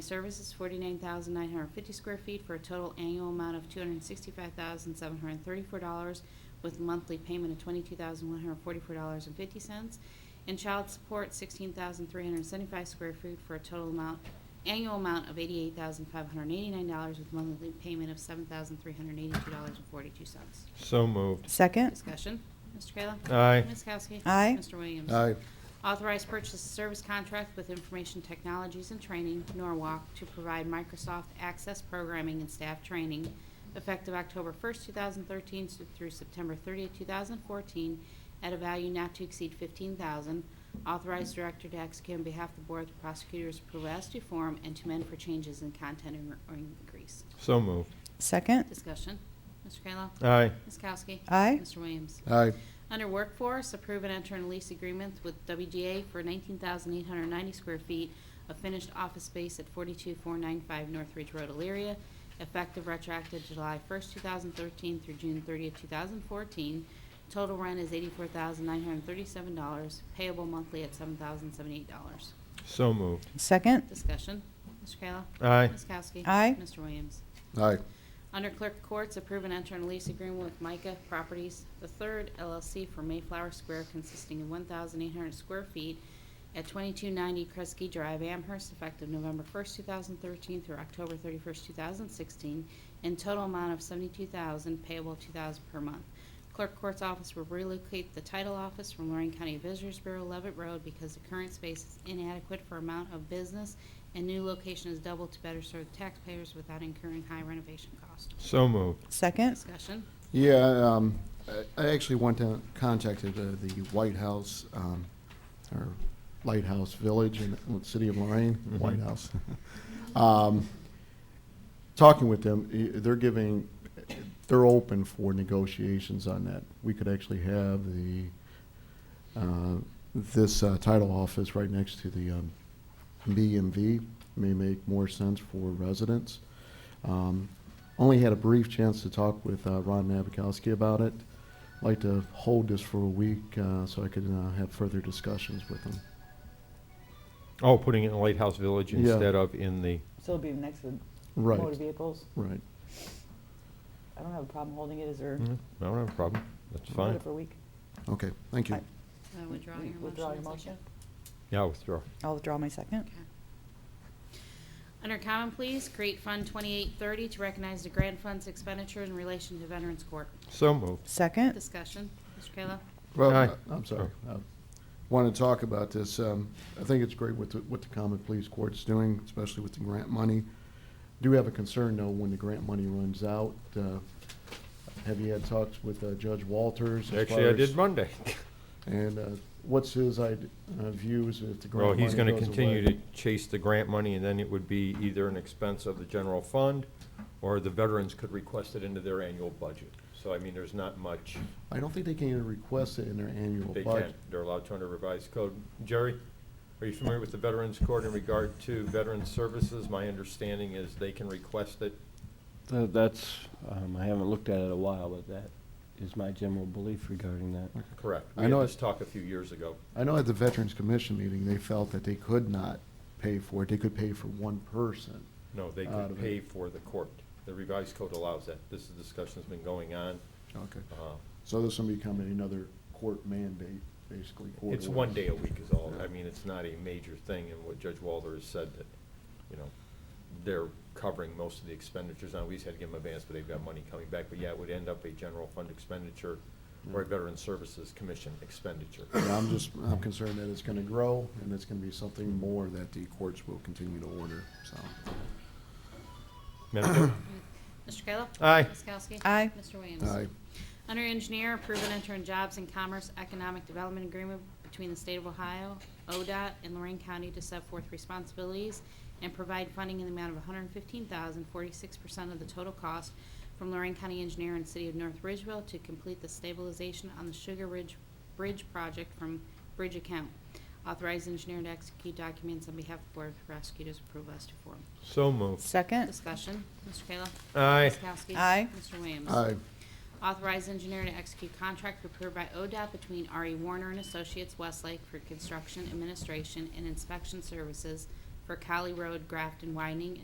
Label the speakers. Speaker 1: Services, 49,950 square feet for a total annual amount of $265,734 with monthly payment of $22,144.50. And child support, 16,375 square feet for a total amount, annual amount of $88,589 with monthly payment of $7,382.42.
Speaker 2: So moved.
Speaker 3: Second.
Speaker 1: Discussion. Mr. Kayla?
Speaker 2: Aye.
Speaker 1: Ms. Kowski?
Speaker 3: Aye.
Speaker 1: Mr. Williams?
Speaker 4: aye,
Speaker 1: Authorized purchase of service contract with Information Technologies and Training, Norwalk, to provide Microsoft Access programming and staff training effective October 1st, 2013 s- through September 30th, 2014, at a value not to exceed 15000 Authorized director to execute on behalf of the Board of Prosecutors approve as to form and to amend for changes in content or or increase.
Speaker 2: So moved.
Speaker 3: Second.
Speaker 1: Discussion. Mr. Kayla?
Speaker 2: Aye.
Speaker 1: Ms. Kowski?
Speaker 3: Aye.
Speaker 1: Mr. Williams?
Speaker 4: aye,
Speaker 1: Under Workforce, approve and enter a lease agreement with WGA for 19,890 square feet of finished office space at 42495 Northridge Road, Elyria, effective retroactive July 1st, 2013 through June 30th, 2014. Total rent is $84,937, payable monthly at $7,078.
Speaker 2: So moved.
Speaker 3: Second.
Speaker 1: Discussion. Mr. Kayla?
Speaker 2: Aye.
Speaker 1: Ms. Kowski?
Speaker 3: Aye.
Speaker 1: Mr. Williams?
Speaker 4: aye,
Speaker 1: Under Clerk Courts, approve and enter a lease agreement with Micah Properties the Third LLC for Mayflower Square consisting of 1,800 square feet at 2290 Kresge Drive, Amherst, effective November 1st, 2013 through October 31st, 2016, in total amount of $72,000 payable $2,000 per month. Clerk Courts Office will relocate the title office from Lorraine County Visitors Bureau Levitt Road because the current space is inadequate for amount of business and new location is doubled to better serve taxpayers without incurring high renovation costs.
Speaker 2: So moved.
Speaker 3: Second.
Speaker 1: Discussion?
Speaker 4: yeah, um, I- I actually went to, contacted uh, the White House, um, or Lighthouse Village in the city of Lorraine,
Speaker 2: Mhm.
Speaker 4: White House. Um, Talking with them, i- they're giving, they're open for negotiations on that. We could actually have the, uh, this uh, title office right next to the um, BMV may make more sense for residents. Um, Only had a brief chance to talk with uh, Ron Nabokowski about it. Like to hold this for a week uh, so I could uh, have further discussions with him.
Speaker 2: Oh, putting it in Lighthouse Village
Speaker 4: Yeah.
Speaker 2: instead of in the,
Speaker 5: So it'll be next to
Speaker 4: Right,
Speaker 5: motor vehicles?
Speaker 4: right.
Speaker 5: I don't have a problem holding it, is there?
Speaker 2: Mm, I don't have a problem. That's
Speaker 5: Hold it
Speaker 2: fine.
Speaker 5: For a week?
Speaker 4: Okay, thank you.
Speaker 5: Aye.
Speaker 1: Uh, Withdraw your motion.
Speaker 5: Withdraw your
Speaker 1: is that
Speaker 5: motion?
Speaker 1: good?
Speaker 2: Yeah, withdraw.
Speaker 3: I'll withdraw my second.
Speaker 1: Okay. Under Common Pleas, create Fund 2830 to recognize the grant fund's expenditure in relation to Veterans Court.
Speaker 2: So moved.
Speaker 3: Second.
Speaker 1: Discussion? Mr. Kayla?
Speaker 4: Well,
Speaker 2: Aye.
Speaker 4: uh, I'm sorry. I Want to talk about this. Um, I think it's great what the, what the common police court's doing, especially with the grant money. Do have a concern though when the grant money runs out. Uh, Have you had talks with uh, Judge Walters? as
Speaker 2: Actually,
Speaker 4: far
Speaker 2: I
Speaker 4: as-
Speaker 2: did Monday.
Speaker 4: And uh, what's his ide- uh, views if the grant
Speaker 2: Well,
Speaker 4: money
Speaker 2: he's going to
Speaker 4: goes
Speaker 2: continue
Speaker 4: away?
Speaker 2: to chase the grant money, and then it would be either an expense of the general fund, or the veterans could request it into their annual budget. So, I mean, there's not much
Speaker 4: I don't think they can even request it in their annual
Speaker 2: they
Speaker 4: budget.
Speaker 2: can't. They're allowed to under revised code. Jerry, are you familiar with the Veterans Court in regard to veteran services? My understanding is they can request it
Speaker 6: Tha- That's, um, I haven't looked at it a while, but that is my general belief regarding that.
Speaker 2: Correct.
Speaker 4: I
Speaker 2: We had
Speaker 4: know
Speaker 2: this
Speaker 4: it-
Speaker 2: talk a few years ago.
Speaker 4: I know at the Veterans Commission meeting, they felt that they could not pay for it. They could pay for one person.
Speaker 2: No, they
Speaker 4: Out
Speaker 2: could
Speaker 4: of
Speaker 2: pay
Speaker 4: it.
Speaker 2: for the court. The revised code allows that. This discussion's been going on.
Speaker 4: Okay.
Speaker 2: Uh,
Speaker 4: So this will become another court mandate, basically. court
Speaker 2: It's one
Speaker 4: orders.
Speaker 2: day a week is all.
Speaker 4: Yeah.
Speaker 2: I mean, it's not a major thing, and what Judge Walder has said that, you know, they're covering most of the expenditures. Now, we just had to give them advance, but they've got money coming back. But yeah, it would end up a general fund expenditure or a
Speaker 4: Yeah.
Speaker 2: Veteran Services Commission expenditure.
Speaker 4: And I'm just, I'm concerned that it's gonna grow, and it's gonna be something more that the courts will continue to order, so.
Speaker 2: Madam Clerk?
Speaker 1: Mr. Kayla?
Speaker 2: Aye.
Speaker 1: Ms. Kowski?
Speaker 3: Aye.
Speaker 1: Mr. Williams?
Speaker 4: Aye,
Speaker 1: Under Engineer, approve and enter in Jobs and Commerce Economic Development Agreement between the State of Ohio, ODOT, and Lorraine County to set forth responsibilities and provide funding in the amount of $115,046 percent of the total cost from Lorraine County Engineer and City of North Ridgeville to complete the stabilization on the Sugar Ridge Bridge project from bridge account. Authorize engineer to execute documents on behalf of the Board of Prosecutors, approve as to form.
Speaker 2: So moved.
Speaker 3: Second.
Speaker 1: Discussion, Mr. Kayla.
Speaker 2: Aye.
Speaker 1: Ms. Kowski.
Speaker 3: Aye.
Speaker 1: Mr. Williams.
Speaker 4: aye,
Speaker 1: Authorize engineer to execute contract approved by ODOT between E R.E. Warner and Associates Westlake for construction administration and inspection services for for Cali Road Grafton widening